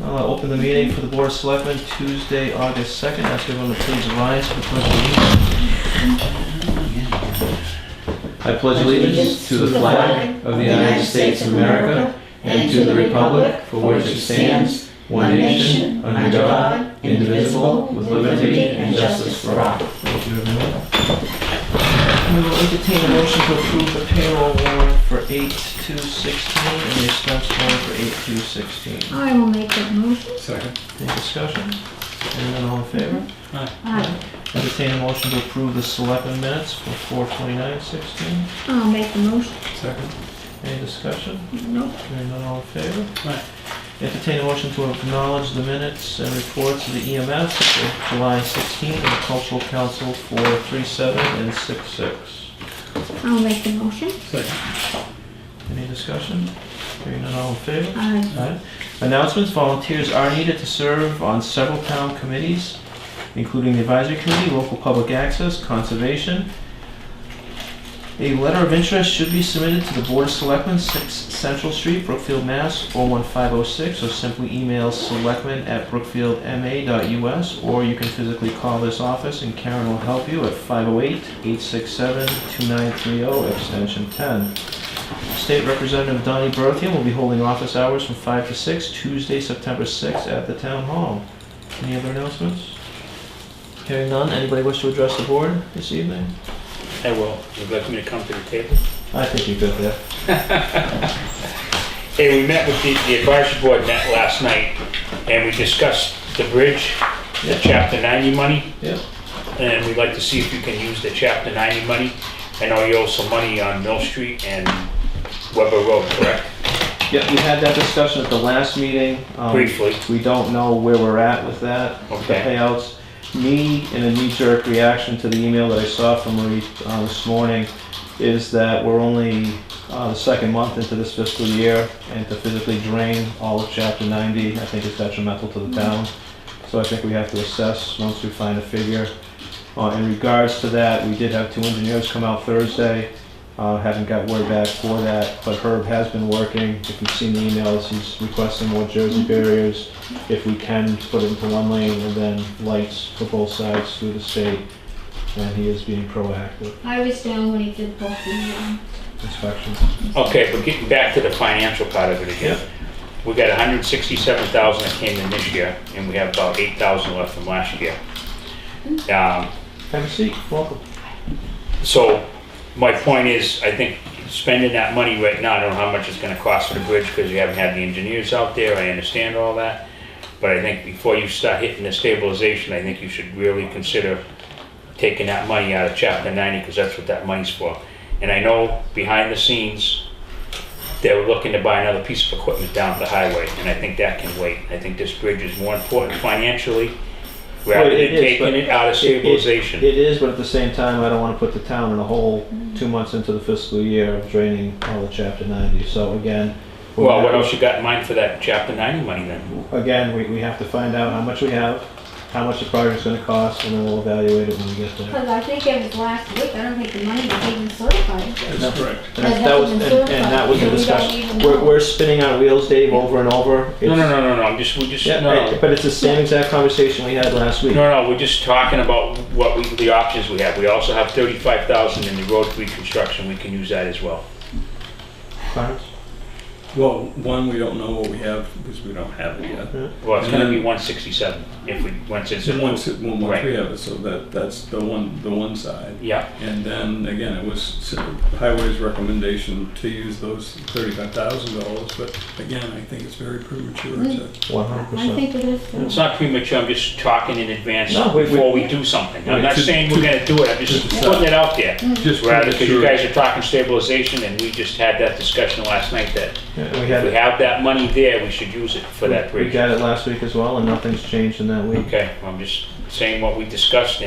uh, Board of Selectmen, Tuesday, August 2nd. Ask everyone to please rise for the pledge of allegiance. I pledge allegiance to the flag of the United States of America and to the republic for which it stands, one nation, under God, indivisible, with liberty and justice for all. Thank you, everyone. We will entertain a motion to approve the payroll warrant for 8/2/16 and the expense warrant for 8/2/16. I will make that motion. Second. Any discussion? Anyone all in favor? Aye. Entertain a motion to approve the selectmen minutes for 4/29/16. I'll make the motion. Second. Any discussion? No. Hearing none, all in favor? Aye. Entertain a motion to acknowledge the minutes and reports of the EMS for July 16 and the cultural council for 3/7 and 6/6. I'll make the motion. Second. Any discussion? Hearing none, all in favor? Aye. Alright. Announcements, volunteers are needed to serve on several town committees, including the advisory committee, local public access, conservation. A letter of interest should be submitted to the Board of Selectmen, 6 Central Street, Brookfield, Mass. 01506, or simply email selectmen@brookfieldma.us, or you can physically call this office and Karen will help you at 508-867-2930, oh, extension 10. State Representative Donnie Berthium will be holding office hours from 5 to 6, Tuesday, September 6th, at the Town Hall. Any other announcements? Hearing none, anybody wish to address the board this evening? I will. Would you like me to come to the table? I think you could, yeah. Hey, we met with the, the advisory board met last night and we discussed the bridge, the Yeah. chapter ninety money. Yeah. And we'd like to see if you can use the chapter ninety money. I know you owe some money on Mill Street and Weber Road, correct? Yeah, we had that discussion at the last meeting. Um, Briefly. We don't know where we're at with that, the Okay. payouts. Me, in a knee-jerk reaction to the email that I saw from Marie uh, this morning, is that we're only uh, the second month into this fiscal year, and to physically drain all of Chapter 90, I think is detrimental to the town. So I think we have to assess once we find a figure. Uh, In regards to that, we did have two engineers come out Thursday. Uh, Haven't got word back for that, but Herb has been working. If you've seen the emails, he's requesting more Jersey barriers. If we can, put it into one lane and then lights for both sides through the state. And he is being proactive I was down when he did both the, um, inspections. Okay, but getting back to the financial part of it again. We got hundred and sixty-seven thousand that came in this year and we have about eight thousand left from last year. Um, Have a seat, welcome. So my point is, I think spending that money right now, I don't know how much it's gonna cost for the bridge because you haven't had the engineers out there, I understand all that. But I think before you start hitting the stabilization, I think you should really consider taking that money out of chapter ninety because that's what that money's for. And I know behind the scenes, they were looking to buy another piece of equipment down the highway and I think that can wait. I think this bridge is more important financially rather Well, it than is, but taking it out of it- it- stabilization. It is, but at the same time, I don't want to put the town in a hole two months into the fiscal year of draining all the chapter ninety. So again. we're Well, gonna what have- else you got in mind for that chapter ninety money then? Again, we, we have to find out how much we have, how much the project's gonna cost, and then we'll evaluate it when we get there. cause I think it was last week, I don't think the money was even certified. That's correct. And that was, and and that was the discussion. We're, we're spinning our wheels, Dave, over and over. No, no, It's- no, no, no, I'm just, we just, Yeah, no, right, no, but it's the same exact conversation we had last week. no, no, we're just talking about what we, the options we have. We also have thirty-five thousand in the road reconstruction, we can use that as well. Clarence? Well, one, we don't know what we have because we don't have it yet. Well, it's Mm-hmm. gonna be one sixty-seven if we, once it's. So once, it- well, once we Right. have it, so that, that's the one, the one side. Yeah, And then, again, it was s- Highway's recommendation to use those thirty-five thousand dollars, but again, I think it's very premature to. One hundred I percent. think it is. it's not premature, I'm just talking in advance No, we- we- before we do something. I'm Right, not to- saying we're gonna do it, I'm just to- putting it out there. Mm. Just Rather, because you premature. guys are talking stabilization and we just had that discussion last night that We if had we it, have that money there, we should use it for that we bridge. got it last week as well, and nothing's changed in that week. Okay, I'm just saying what we discussed and